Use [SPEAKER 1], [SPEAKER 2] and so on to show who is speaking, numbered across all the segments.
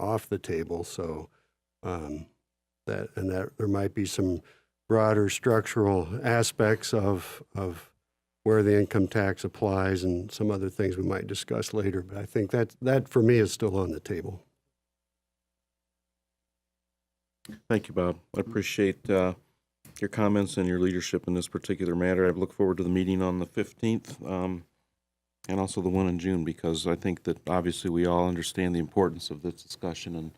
[SPEAKER 1] off the table, so um, that, and that there might be some broader structural aspects of, of where the income tax applies and some other things we might discuss later, but I think that, that for me is still on the table.
[SPEAKER 2] Thank you, Bob. I appreciate uh, your comments and your leadership in this particular matter. I look forward to the meeting on the 15th um, and also the one in June because I think that obviously we all understand the importance of this discussion and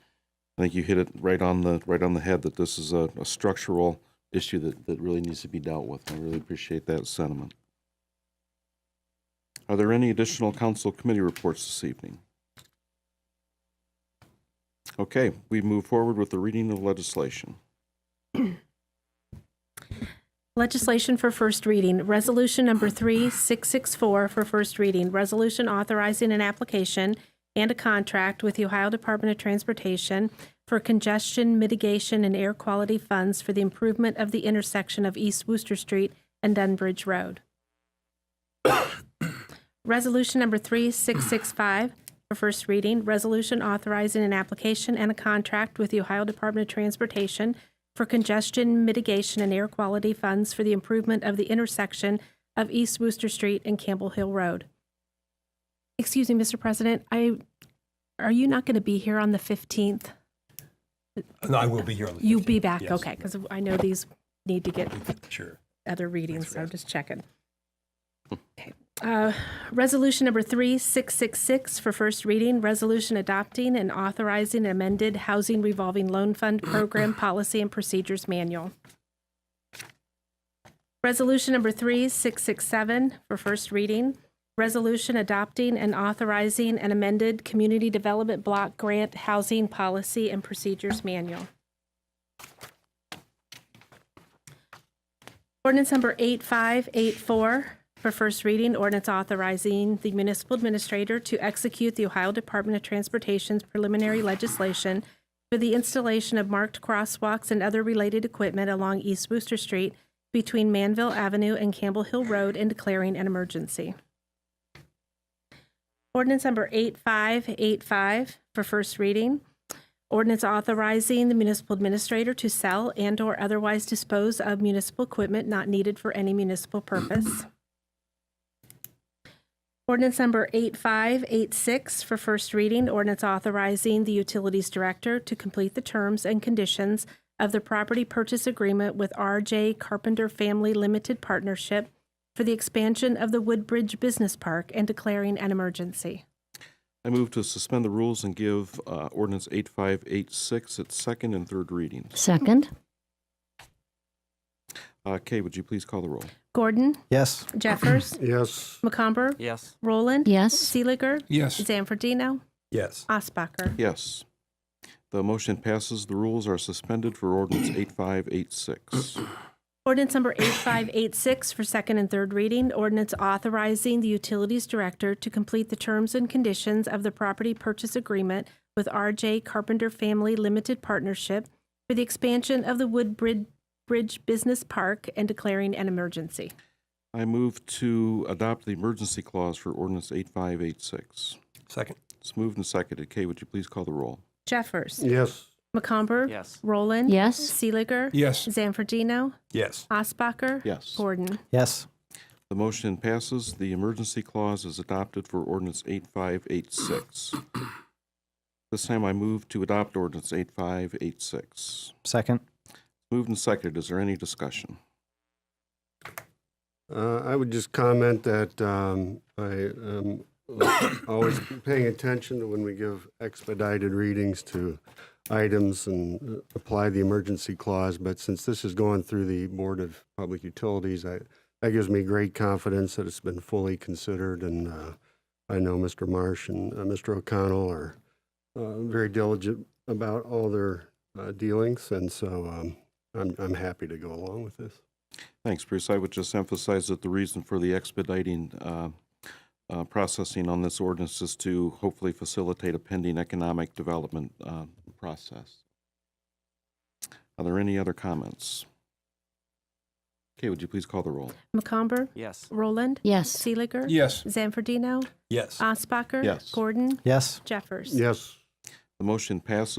[SPEAKER 2] I think you hit it right on the right on the head that this is a, a structural issue that, that really needs to be dealt with. I really appreciate that sentiment. Are there any additional council committee reports this evening? Okay, we move forward with the reading of legislation.
[SPEAKER 3] Legislation for first reading, Resolution Number 3664 for first reading, resolution authorizing an application and a contract with the Ohio Department of Transportation for congestion mitigation and air quality funds for the improvement of the intersection of East Wooster Street and Dunbridge Road. Resolution Number 3665 for first reading, resolution authorizing an application and a contract with the Ohio Department of Transportation for congestion mitigation and air quality funds for the improvement of the intersection of East Wooster Street and Campbell Hill Road. Excuse me, Mr. President, I, are you not going to be here on the 15th?
[SPEAKER 4] No, I will be here on the.
[SPEAKER 3] You'll be back,
[SPEAKER 4] Yes.
[SPEAKER 3] okay, because I know these need to get
[SPEAKER 4] 15th, Sure.
[SPEAKER 3] other readings, so I'm just checking. Okay. Uh, Resolution number 3666 for first reading, resolution adopting and authorizing amended Housing Revolving Loan Fund Program Policy and Procedures Manual. Resolution number 3667 for first reading, resolution adopting and authorizing an amended Community Development Block Grant Housing Policy and Procedures Manual. Ordinance number 8584 for first reading, ordinance authorizing the municipal administrator to execute the Ohio Department of Transportation's preliminary legislation for the installation of marked crosswalks and other related equipment along East Wooster Street between Manville Avenue and Campbell Hill Road and declaring an emergency. Ordinance number 8585 for first reading, Ordinance authorizing the municipal administrator to sell and/or otherwise dispose of municipal equipment not needed for any municipal purpose. Ordinance number 8586 for first reading, ordinance authorizing the utilities director to complete the terms and conditions of the property purchase agreement with RJ Carpenter Family Limited Partnership for the expansion of the Woodbridge Business Park and declaring an emergency.
[SPEAKER 2] I move to suspend the rules and give uh, ordinance 8586 its second and third readings.
[SPEAKER 5] Second?
[SPEAKER 2] Uh, Kay, would you please call the roll?
[SPEAKER 3] Gordon,
[SPEAKER 4] Yes.
[SPEAKER 3] Jeffers,
[SPEAKER 1] Yes,
[SPEAKER 3] McComber,
[SPEAKER 6] Yes.
[SPEAKER 3] Roland.
[SPEAKER 5] Yes.
[SPEAKER 3] Seeliger.
[SPEAKER 4] Yes.
[SPEAKER 3] Zanfordino.
[SPEAKER 4] Yes.
[SPEAKER 3] Osbacher.
[SPEAKER 2] Yes. The motion passes. The rules are suspended for ordinance 8586.
[SPEAKER 3] Ordinance number 8586 for second and third reading. Ordinance authorizing the Utilities Director to complete the terms and conditions of the property purchase agreement with RJ Carpenter Family Limited Partnership for the expansion of the Woodbridge Bridge Business Park and declaring an emergency.
[SPEAKER 2] I move to adopt the emergency clause for ordinance 8586.
[SPEAKER 4] Second.
[SPEAKER 2] It's moved and seconded. Kay, would you please call the roll?
[SPEAKER 3] Jeffers.
[SPEAKER 1] yes,
[SPEAKER 3] McComber.
[SPEAKER 6] Yes.
[SPEAKER 3] Roland.
[SPEAKER 5] Yes.
[SPEAKER 3] Seeliger.
[SPEAKER 4] Yes.
[SPEAKER 3] Zanfordino.
[SPEAKER 4] Yes.
[SPEAKER 3] Osbacher.
[SPEAKER 2] Yes.
[SPEAKER 3] Gordon.
[SPEAKER 4] Yes.
[SPEAKER 2] The motion passes. The emergency clause is adopted for ordinance 8586. This time I move to adopt ordinance 8586.
[SPEAKER 4] Second.
[SPEAKER 2] Moved and seconded. Is there any discussion?
[SPEAKER 1] Uh, I would just comment that um, I am always paying attention to when we give expedited readings to items and uh, apply the emergency clause, but since this is going through the Board of Public Utilities, I, that gives me great confidence that it's been fully considered, and uh, I know Mr. Marsh and uh, Mr. O'Connell are uh, very diligent about all their uh, dealings, and so um, I'm, I'm happy to go along with this.
[SPEAKER 2] Thanks, Bruce. I would just emphasize that the reason for the expediting uh, uh, processing on this ordinance is to hopefully facilitate a pending economic development uh, process. Are there any other comments? Kay, would you please call the roll?
[SPEAKER 3] McComber.
[SPEAKER 6] Yes.
[SPEAKER 3] Roland.
[SPEAKER 5] Yes.
[SPEAKER 3] Seeliger.
[SPEAKER 4] Yes.
[SPEAKER 3] Zanfordino.
[SPEAKER 4] Yes.
[SPEAKER 3] Osbacher.
[SPEAKER 2] Yes.
[SPEAKER 3] Gordon.
[SPEAKER 4] Yes.
[SPEAKER 3] Jeffers.
[SPEAKER 1] Yes.
[SPEAKER 2] The motion passes